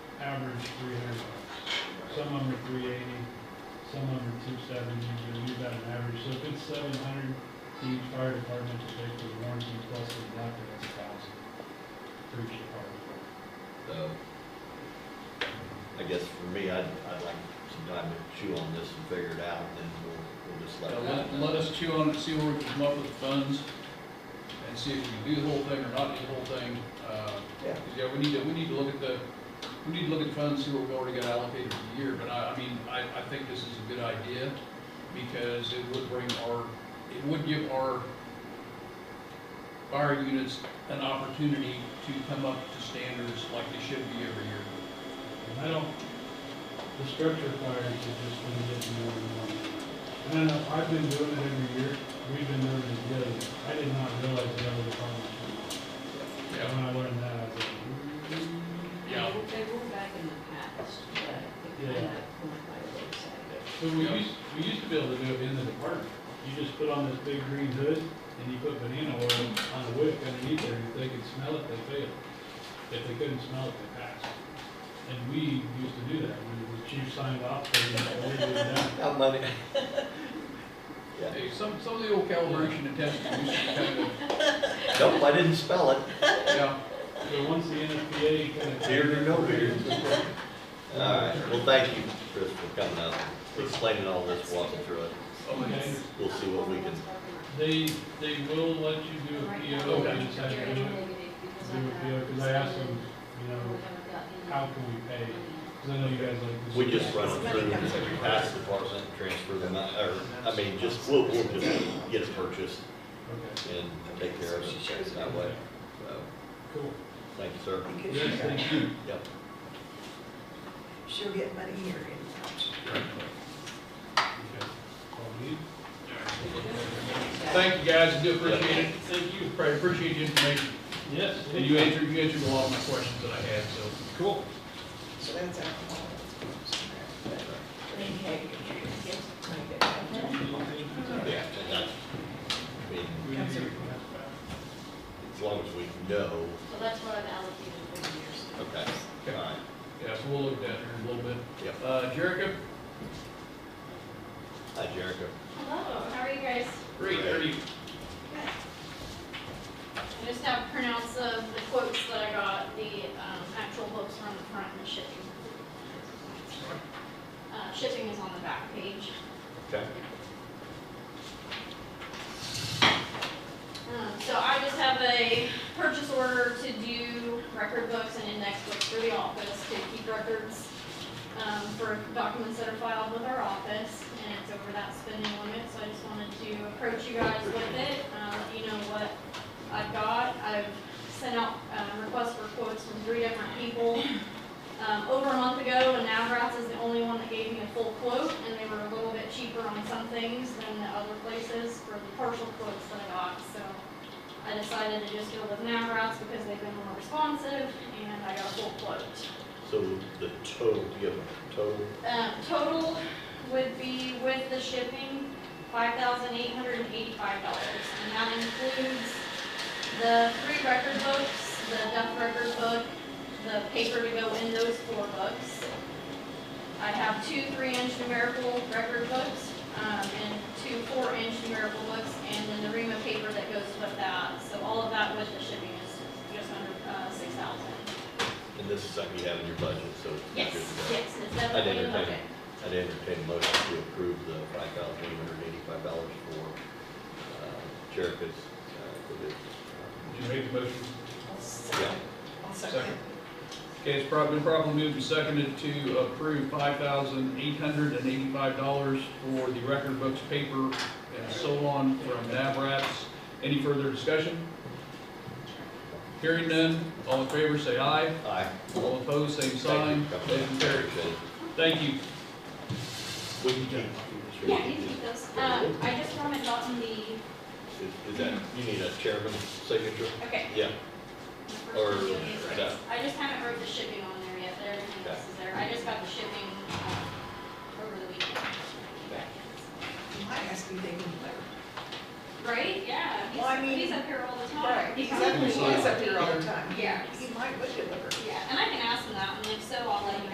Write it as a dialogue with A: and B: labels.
A: three hundred, some under three eighty, some under two seventy, but you've got an average, so if it's seven hundred, each fire department to pay for the warranty plus the electric, that's a thousand. For each department.
B: So, I guess for me, I'd, I'd like some time to chew on this and figure it out, and then we'll, we'll just let
C: Yeah,
B: it
C: Let, let us chew on it, see where we can come up with the funds, and see if we can do the whole thing or not do the whole thing. Uh,
B: Yeah.
C: 'cause, Yeah, we need to, we need to look at the, we need to look at funds, see what we've already got allocated for the year, but I, I mean, I, I think this is a good idea, because it would bring our, it would give our fire units an opportunity to come up to standards like they should be every year.
A: And I don't, the structure fires are just gonna get more and more. And I know, I've been doing it every year, we've been doing it together, I did not realize the other departments were not.
C: Yeah.
A: When I learned that, I was like, "Mm."
C: Yeah.
D: They were- They were back in the past, but they kind
A: Yeah.
D: of went by the wayside.
A: So we used, we used to be able to do it in the department. You just put on this big green hood and you put banana oil on a wick underneath there. If they could smell it, they failed. If they couldn't smell it, they passed. And we used to do that. When the chief signed off, they did that.
B: out. How money? Yeah,
C: Hey, Some, some of the old calibration and testing used to be kind of,
B: nope, I didn't spell it.
C: yeah,
A: So once the NFPA kind of.
B: Here or no here. All right, well, thank you, Chris, for coming out, explaining all this, walking through it.
C: Oh,
A: Okay,
B: We'll see what we can,
A: they, they will let you do a PO,
C: Okay.
A: you just have to do it, do a PO, because I asked them, you know, how can we pay? Because I know you guys like this.
B: we just run it through, and if we pass the department, transfer them, out, or, I mean, just, we'll, we'll just get it purchased
A: Okay,
B: and take care of it that way. So,
A: cool.
B: thank you, sir.
A: Yes, thank you.
B: Yep.
E: She'll get money here in March.
A: Okay. All good?
C: Thank you, guys, I do appreciate it.
A: Thank you.
C: Right, appreciate the information,
A: Yes.
C: and you answered, you answered a lot of my questions that I had, so.
A: Cool.
E: So that's alcohol.
B: Yeah, and that's, I mean,
A: We need to-
B: as long as we know,
D: So that's what I've allocated for the years.
B: okay, all right,
C: Yeah, so we'll look at that here in a little bit.
B: yep.
C: Uh, Jericho,
B: Hi, Jericho.
D: Hello, how are you guys?
C: great, how are you?
D: I just have printouts of the quotes that I got, the um, actual books are on the front and the shipping. Uh, Shipping is on the back page.
B: Okay.
D: Um, So I just have a purchase order to do record books and index books for the office to keep records um, for documents that are filed with our office, and it's over that spending limit, so I just wanted to approach you guys with it, uh, let you know what I've got. I've sent out uh, requests for quotes from three different people um, over a month ago, and Navratz is the only one that gave me a full quote, and they were a little bit cheaper on some things than the other places for the partial quotes that I got, so I decided to just go with Navratz because they've been more responsive, and I got a full quote.
B: So the total, do you have a total?
D: Um, total would be with the shipping, five thousand eight hundred and eighty-five dollars. And that includes the three record books, the Duff record book, the paper to go in those four books. I have two three-inch numerical record books, um, and two four-inch numerical books, and then the ream of paper that goes with that. So all of that with the shipping is just under, uh, six thousand.
B: And this is something you have in your budget, so. it's good
D: Yes,
B: to go.
D: yes, it's definitely in the
B: entertain it.
D: budget.
B: I'd entertain a motion to approve the five thousand eight hundred eighty-five dollars for uh, Jericho's, uh, for this. uh,
C: Did you make the motion?
B: Yeah,
E: I'll
C: Second. Okay, it's probably been properly moved and seconded to approve five thousand eight hundred and eighty-five dollars for the record books, paper, and so on from Navratz. Any further discussion? Hearing none, all in favor, say aye.
B: aye.
C: All opposed, same sign.
B: Thank you.
C: Motion carries. Thank you.
B: We can keep.
D: Yeah, you keep those. Um, I just haven't gotten the,
B: Is, is that, you need a chairman's signature?
D: okay.
B: Yeah,
D: the first
B: Or
D: one you gave me
B: that.
D: is right. I just haven't wrote the shipping on there yet, there, everything else is there. I just got the shipping, um, over the weekend.
E: You might ask me they can deliver.
D: Right, yeah,
E: Well, I
D: he's,
E: mean-
D: he's up here all the time.
E: Right, exactly, he is up here all the time.
D: Yeah.
E: He might would deliver.
D: Yeah, and I can ask him that, and if so, I'll